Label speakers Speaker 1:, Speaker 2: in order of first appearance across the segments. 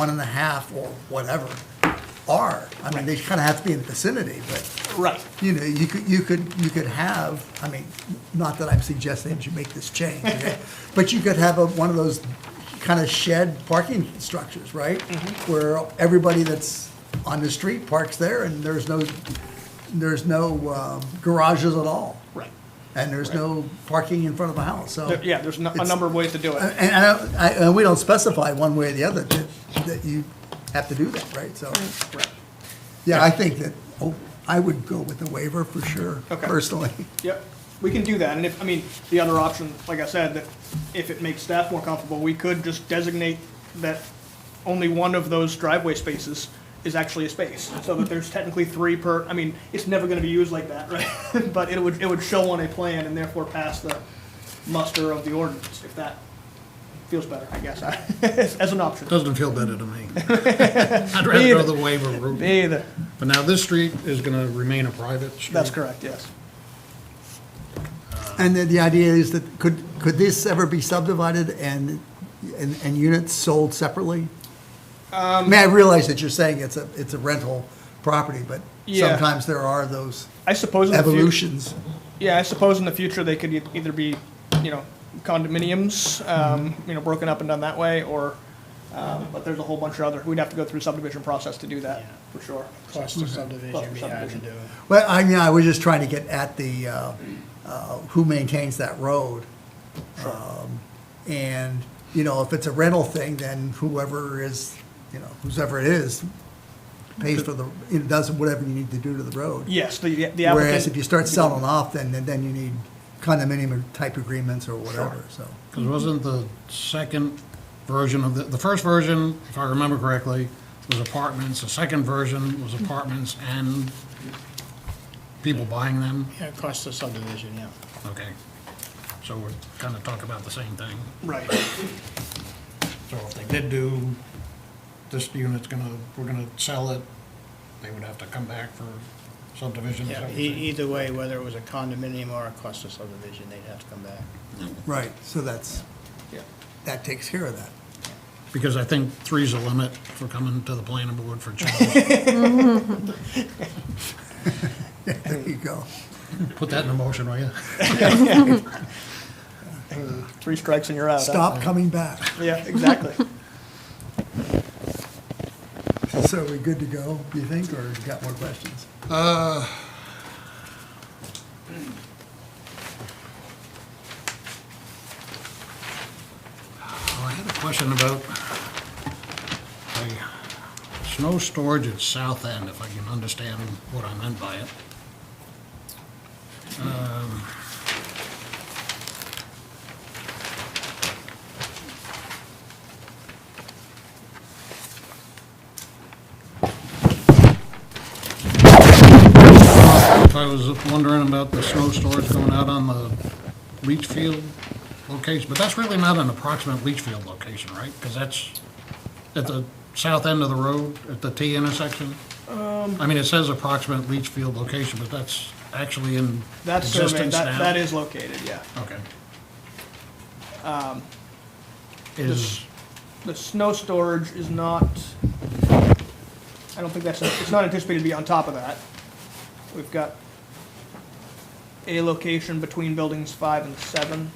Speaker 1: one and a half or whatever are. I mean, they kind of have to be in the vicinity, but,
Speaker 2: Right.
Speaker 1: you know, you could, you could, you could have, I mean, not that I'm suggesting that you make this change, okay? but you could have a, one of those kind of shed parking structures, right?
Speaker 2: Mm-hmm.
Speaker 1: Where everybody that's on the street parks there and there's no, there's no um, garages at all.
Speaker 2: Right.
Speaker 1: And there's no parking in front of the house, so.
Speaker 2: There- Yeah, there's no- a
Speaker 1: it's- uh,
Speaker 2: number of ways to do it.
Speaker 1: And I don't- I, and we don't specify one way or the other that, that you have to do that, right? So,
Speaker 2: Right.
Speaker 1: yeah, I think that, oh, I would go with the waiver for sure,
Speaker 2: Okay.
Speaker 1: personally.
Speaker 2: Yep, we can do that, and if, I mean, the other option, like I said, that if it makes staff more comfortable, we could just designate that only one of those driveway spaces is actually a space, so that there's technically three per, I mean, it's never gonna be used like that, right? But it would, it would show on a plan and therefore pass the muster of the ordinance, if that feels better, I guess, as an option.
Speaker 3: Doesn't feel better to me. I'd rather go the waiver route.
Speaker 2: Me either.
Speaker 3: But now this street is gonna remain a private street.
Speaker 2: That's correct, yes.
Speaker 1: And then the idea is that, could, could this ever be subdivided and, and, and units sold separately?
Speaker 2: Um,
Speaker 1: I mean, I realize that you're saying it's a, it's a rental property, but
Speaker 2: Yeah.
Speaker 1: sometimes there are those
Speaker 2: I suppose in the future.
Speaker 1: evolutions.
Speaker 2: Yeah, I suppose in the future they could e- either be, you know, condominiums, um, you know, broken up and done that way, or, um, but there's a whole bunch of other, we'd have to go through subdivision process to do that, for sure.
Speaker 4: Plus the subdivision, we had to do it.
Speaker 1: Well, I mean, I was just trying to get at the, uh, uh, who maintains that road. Um, And, you know, if it's a rental thing, then whoever is, you know, whoever it is pays for the, it does whatever you need to do to the road.
Speaker 2: Yes, the, the
Speaker 1: Whereas if you
Speaker 2: applicant,
Speaker 1: start selling off, then, then you need condominium type agreements or whatever, so.
Speaker 3: Because wasn't the second version of the, the first version, if I remember correctly, was apartments, the second version was apartments and people buying them?
Speaker 4: Yeah, it cost the subdivision, yeah.
Speaker 3: Okay. So we're kind of talking about the same thing.
Speaker 2: right,
Speaker 3: So if they did do, this unit's gonna, we're gonna sell it, they would have to come back for subdivision or
Speaker 4: Yeah,
Speaker 3: something.
Speaker 4: e- either way, whether it was a condominium or a cluster subdivision, they'd have to come back.
Speaker 1: Right, so that's,
Speaker 2: yeah.
Speaker 1: that takes care of that.
Speaker 3: Because I think three's the limit for coming to the planning board for change.
Speaker 1: There you go.
Speaker 3: Put that in a motion, will you?
Speaker 2: Three strikes and you're out. huh?
Speaker 1: Stop coming back.
Speaker 2: Yeah, exactly.
Speaker 1: So are we good to go, do you think, or you got more questions?
Speaker 3: Oh, I had a question about the snow storage at South End, if I can understand what I meant by it. Um, If I was wondering about the snow storage going out on the leach field location, but that's really not an approximate leach field location, right? Because that's at the south end of the road, at the T intersection?
Speaker 2: Um.
Speaker 3: I mean, it says approximate leach field location, but that's actually in
Speaker 2: That's surveyed,
Speaker 3: existence now?
Speaker 2: that, that is located, yeah.
Speaker 3: Okay.
Speaker 2: Um,
Speaker 3: Is,
Speaker 2: The snow storage is not, I don't think that's, it's not anticipated to be on top of that. We've got a location between buildings five and seven,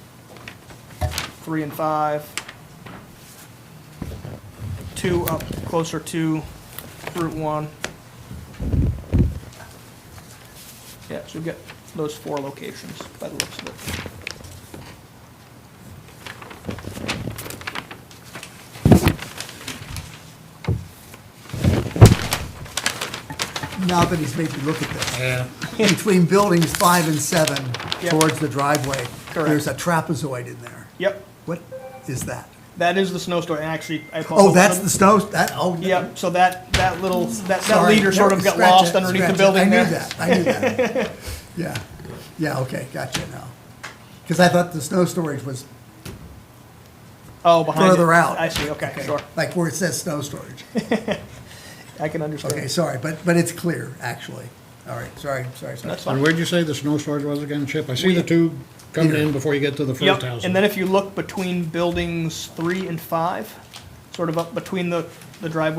Speaker 2: three and five, two up closer to Route One. Yeah, so we've got those four locations by the looks of it.
Speaker 1: Now that he's made me look at this.
Speaker 3: yeah,
Speaker 1: between buildings five and seven
Speaker 2: Yep.
Speaker 1: towards the driveway,
Speaker 2: Correct.
Speaker 1: there's a trapezoid in there.
Speaker 2: Yep,
Speaker 1: What is that?
Speaker 2: that is the snow storage, and actually, I apologize.
Speaker 1: Oh, that's the snow, that, oh.
Speaker 2: Yep, so that, that little, that, that
Speaker 1: sorry.
Speaker 2: leader sort of got
Speaker 1: Scratch
Speaker 2: lost
Speaker 1: that,
Speaker 2: underneath the
Speaker 1: scratch that.
Speaker 2: building there.
Speaker 1: I knew that, I knew that. Yeah, yeah, okay, gotcha now. Because I thought the snow storage was
Speaker 2: Oh, behind it.
Speaker 1: further out.
Speaker 2: I see, okay, sure.
Speaker 1: Like where it says snow storage.
Speaker 2: I can understand.
Speaker 1: Okay, sorry, but, but it's clear, actually. All right, sorry, sorry, sorry.
Speaker 2: That's
Speaker 3: and
Speaker 2: fine.
Speaker 3: where'd you say the snow storage was again, Chip? I see the two coming in before you get to the first
Speaker 2: Yep,
Speaker 3: house.
Speaker 2: and then if you look between buildings three and five, sort of up between the, the driveway